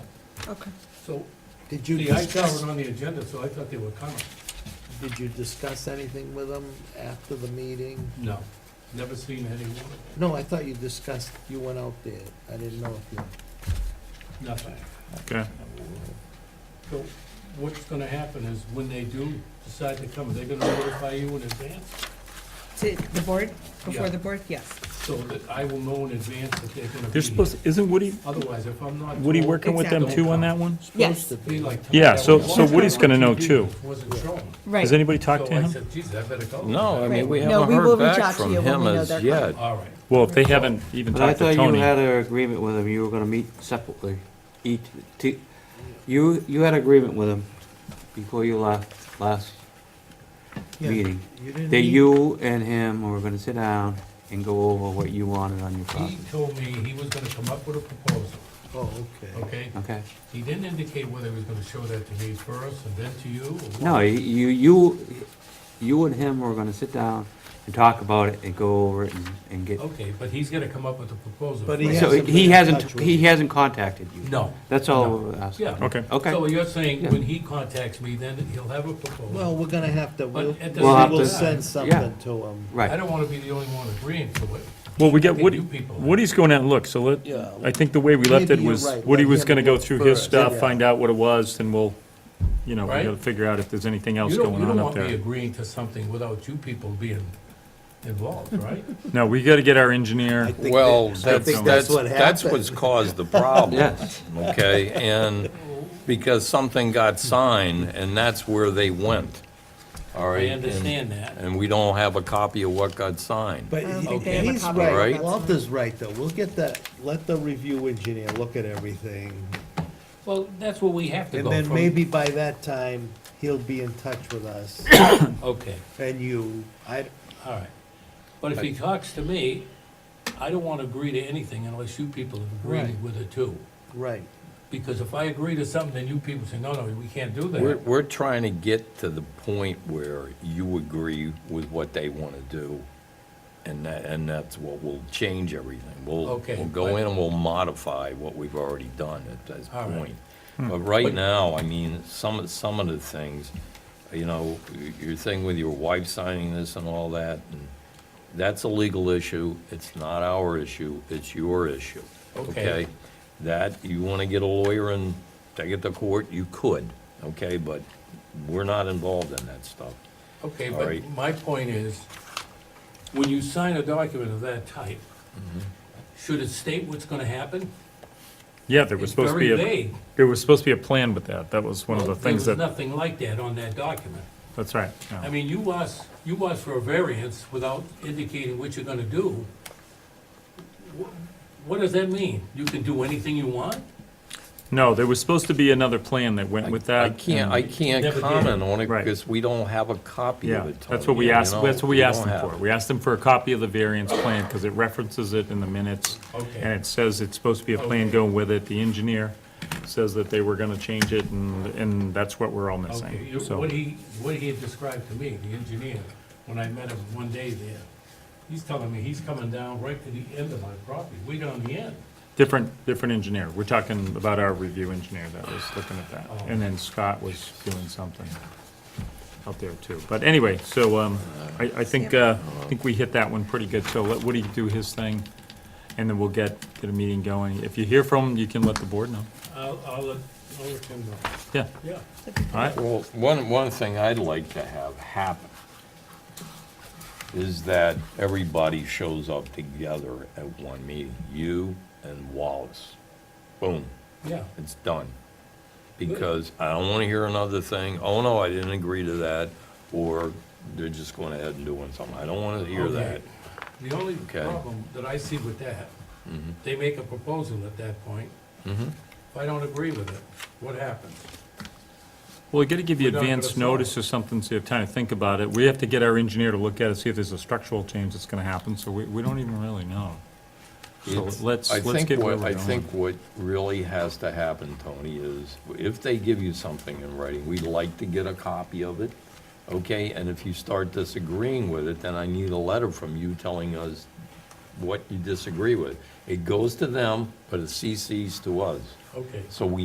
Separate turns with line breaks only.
Okay.
So,
Did you,
the ITAL
discuss-
were on the agenda, so I thought they were coming.
did you discuss anything with them after the meeting?
No, never seen any one,
No, I thought you discussed, you went out there. I didn't know if you.
nothing.
Okay.
So what's gonna happen is when they do decide to come, they're gonna notify you in advance?
To the board,
Yeah.
before the board, yes.
So that I will know in advance that they're gonna be
They're
here.
supposed, isn't Woody,
Otherwise, if I'm not.
Woody
told,
working with them too on that one?
Supposed
Yes.
to
be
be.
like.
Yeah, so-
that
so
was-
Woody's gonna know too.
Wasn't shown.
Has anybody talked to
So I
him?
said, geez, I better go.
No, I
Right.
mean, we
No,
haven't
we will
heard
reach
back
out to
from
you when
him
we know
as
they're
yet.
All right,
Well, if they haven't even
But I
talked to
thought you had
Tony.
an agreement with him, you were gonna meet separately, each, t- you, you had agreement with him before you left, last
Yeah.
meeting.
You didn't
That
need-
you and him were gonna sit down and go over what you wanted on your
he
property,
told me he was gonna come up with a proposal,
Oh, okay.
okay?
okay?
He didn't indicate whether he was gonna show that to me first and then to you or what.
No, you, you, you and him were gonna sit down and talk about it and go over it and, and get.
Okay, but he's gonna come up with a proposal.
Oh, But he
first.
has-
So
hasn't been
he
in
hasn't,
touch with
he
you.
hasn't contacted you?
No.
That's all we're asking.
Yeah.
Okay.
Okay.
So you're saying
Yeah.
when he contacts me, then he'll have a
Well,
proposal?
we're gonna have to, we'll,
But at the
We'll
we'll
have
we'll
to-
send something to him.
I
Right,
don't wanna be the only one agreeing to it.
Well, we got
They
Woody,
do people.
Woody's going out and look, so let,
Yeah.
I think the way we left it
Maybe you're
was,
right,
Woody
let
was
him
gonna go
look
through his
first,
stuff,
yeah.
find out what it was, then we'll, you know, we
Right?
gotta figure out if there's anything else
You don't,
going
you
on
don't want
up
me
there.
agreeing to something without you people being involved, right?
No, we gotta get our engineer,
I think
Well,
that- I
that's,
think
that's,
what
that's
happened.
what's caused the problem,
yes,
okay? And because something got signed, and that's where they went, all right?
I
And-
understand that.
And we don't have a copy of what got signed.
But
don't
he-
think
they have a
he's
copy
of
right,
Right.
Walter's right, though, we'll get that, let the review engineer look at everything,
Well, that's where we have to
and
go
then
from-
maybe by that time, he'll be in touch with us,
Okay,
and you, I,
all right. But if he talks to me, I don't wanna agree to anything unless you people have
Right.
agreed with it too.
right,
Because if I agree to something, then you people say, no, no, we can't do
We're,
that.
we're trying to get to the point where you agree with what they want to do, and that, and that's what will change everything. We'll,
Okay,
we'll go
but-
in and we'll modify what we've already done at this
All right.
point. But right now, I mean, some, of some of the things, you know, y- your thing with your wife signing this and all that, and that's a legal issue, it's not our issue, it's your issue,
Okay.
okay? That, you wanna get a lawyer and take it to court, you could, okay, but we're not involved in that stuff.
Okay,
All
but
right.
my point is, when you sign a document of that type,
Mm-hmm.
should it state what's gonna happen?
yeah, there was
It's
supposed to be
very
a,
vague.
there was supposed to be a plan with that, that was one of the
Well,
things
There
that,
was nothing like that on that document.
that's right. yeah.
I mean, you asked, you asked for a variance without indicating what you're gonna do. Wh- What does that mean? You can do anything you want?
No, there was supposed to be another plan that went with that.
I can't, I
and-
can't
Never did.
comment on it,
Right.
because we don't have a copy of
Yeah,
it.
that's
Tony,
what we
you
asked,
know?
that's what we
We
asked
don't
them
have
for.
it.
We asked them for a copy of the variance plan, because it references it in the minutes.
Okay.
And it says it's supposed to be a plan
Okay.
going with it. The engineer says that they were gonna change it, and, and that's what we're all
Okay,
missing,
you-
so.
what he, what he had described to me, the engineer, when I met him one day there, he's telling me he's coming down right to the end of my property, way down the end.
Different, different engineer. We're talking about our review engineer that was looking at that.
Oh.
And then Scott was doing something out there too. But anyway, so, um, I, I think, uh, I think we hit that one pretty good. So let Woody do his thing, and then we'll get, get a meeting going. If you hear from him, you can let the board know.
I'll, I'll let, I'll let him know.
Yeah,
Yeah,
all right.
Well, one, one thing I'd like to have happen is that everybody shows up together at one meeting, you and Wallace. Boom,
yeah.
it's done. Because I don't wanna hear another thing, oh no, I didn't agree to that, or they're just going ahead and doing something. I don't wanna hear
Okay.
that.
The only
Okay. Mm-hmm.
problem that I see with that, they make a proposal at that point. If I don't agree with it, what happens?
Well, we gotta give you
We're not gonna
advance
solve
notice
it.
or something, so you have time to think about it. We have to get our engineer to look at it, see if there's a structural change that's gonna happen, so we, we don't even really know. So
It's-
let's,
I
let's
think
get where
what-
we're
I think
going.
what really has to happen, Tony, is if they give you something in writing, we'd like to get a copy of it, okay? And if you start disagreeing with it, then I need a letter from you telling us what you disagree with. It goes to them, but it CCs to us,
Okay.
so we